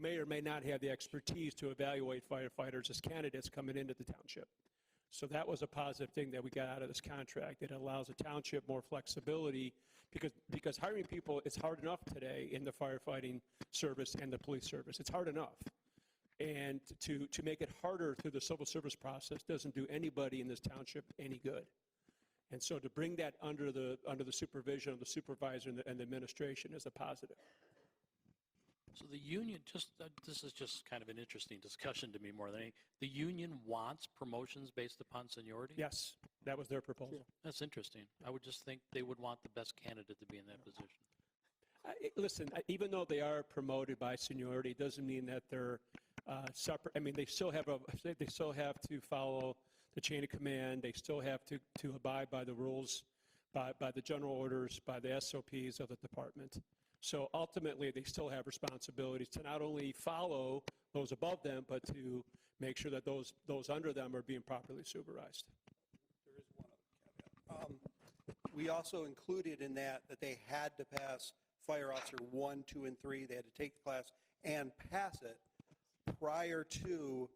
may or may not have the expertise to evaluate firefighters as candidates coming into the township. So that was a positive thing that we got out of this contract. It allows the township more flexibility because, because hiring people is hard enough today in the firefighting service and the police service. It's hard enough. And to, to make it harder through the civil service process doesn't do anybody in this township any good. And so to bring that under the, under the supervision of the supervisor and the, and the administration is a positive. So the union, just, uh, this is just kind of an interesting discussion to me more than any, the union wants promotions based upon seniority? Yes, that was their proposal. That's interesting. I would just think they would want the best candidate to be in that position. I- I- Listen, I- even though they are promoted by seniority, it doesn't mean that they're uh, separate. I mean, they still have, a. they still have to follow the chain of command. They still have to, to abide by the rules, by, by the general orders, by the SOPs of the department. So ultimately, they still have responsibilities to not only follow those above them, but to make sure that those, those under them are being properly supervised. Um, We also included in that that they had to pass Fire Officer 1, 2, and 3. They had to take the class and pass it prior to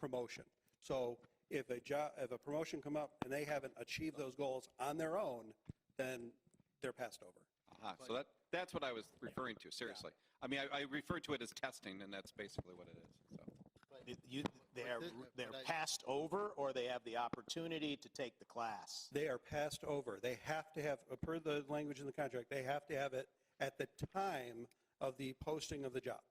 promotion. So if a job, if a promotion come up and they haven't achieved those goals on their own, then they're passed over. Aha, Uh-huh, so that, that's what I was referring to, seriously. I mean, I, I refer to it as testing, and that's basically what it is, so. It- you- They are, thi- they're but I- passed over, or they have the opportunity to take the class? They are passed over. They have to have, per the language in the contract, they have to have it at the time of the posting of the job.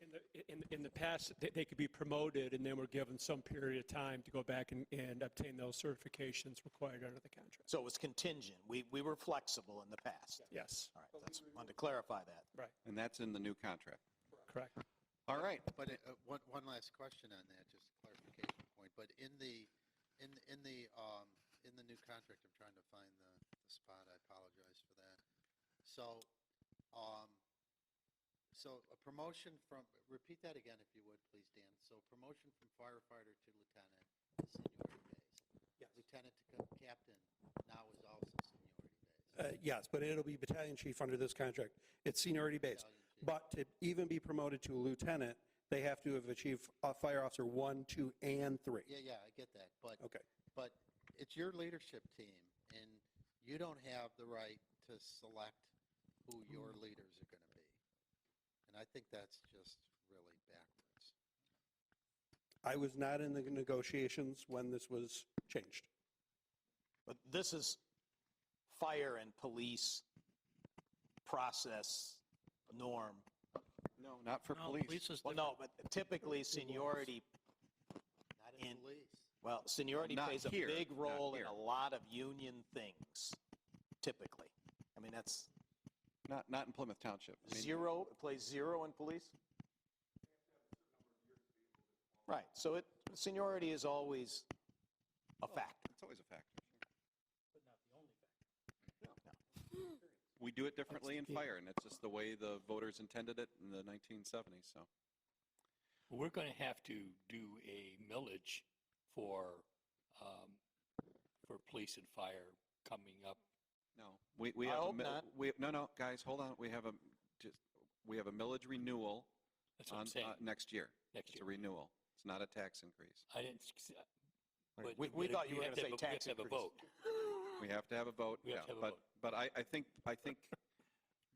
In the, in, in the past, they, they could be promoted and then were given some period of time to go back and, and obtain those certifications required under the contract. So it was contingent. We, we were flexible in the past. Yes, All right, that's, wanted to clarify that. right, And that's in the new contract. correct. All right, But it- uh, one, one last question on that, just a clarification point. But in the, in, in the, um, in the new contract, I'm trying to find the, the spot, I apologize for that. So, um, so a promotion from, repeat that again if you would, please, Dan. So promotion from firefighter to lieutenant is seniority based. Yes. Lieutenant to co- captain now is also seniority based. Uh, Yes, but it'll be battalion chief under this contract. It's seniority based. Battalion chief. But to even be promoted to lieutenant, they have to have achieved uh, fire officer one, two, and three. Yeah, yeah, I get that, but. Okay. But it's your leadership team, and you don't have the right to select who your leaders are going to be. And I think that's just really backwards. I was not in the negotiations when this was changed. But this is fire and police process norm. no, not for No, police police. is Well, different. no, but typically seniority, Not in And- police. well, seniority Not plays a here, big not role in here. a lot of union things, typically. I mean, that's Not, not in Plymouth Township. I mean, zero, it plays zero in police? Right, so it, seniority is always a factor. It's always a factor. But not the only factor. We do it differently in fire, and it's just the way the voters intended it in the 1970s, so. We're going to have to do a millage for, um, for police and fire coming up. No, we, we I have, a hope mi- not. we, no, no, guys, hold on, we have a, just, we have a millage renewal That's what I'm on, saying, uh, next year. next It's a year. renewal, it's not a tax increase. I didn't. s- but we- we but thought you were have gonna to say have a- tax We have to increase. have a vote. We have to have a vote, We have yeah. to have a But, vote. but I, I think, I think,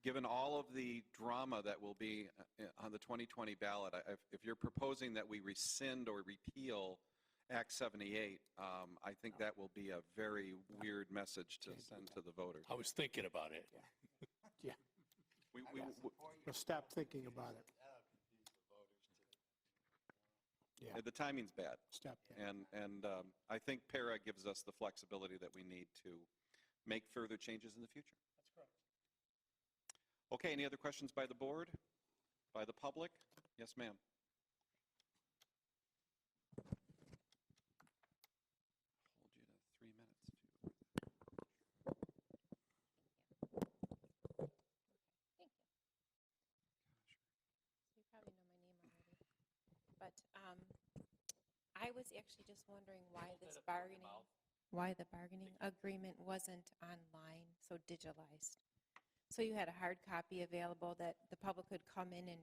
given all of the drama that will be uh, on the 2020 ballot, I- if- if you're proposing that we rescind or repeal Act 78, um, I think that will be a very weird message to send to the voters. I was thinking about it. We, we, we- Or stop thinking about it. Yeah, the timing's bad. stop that. And, and um, I think para gives us the flexibility that we need to make further changes in the future. That's correct. Okay, any other questions by the board, by the public? Yes, ma'am. Hold you to three minutes. You probably know my name already. But um, I was actually just wondering why this bargaining, why the bargaining agreement wasn't online, so digitalized. So you had a hard copy available that the public could come in and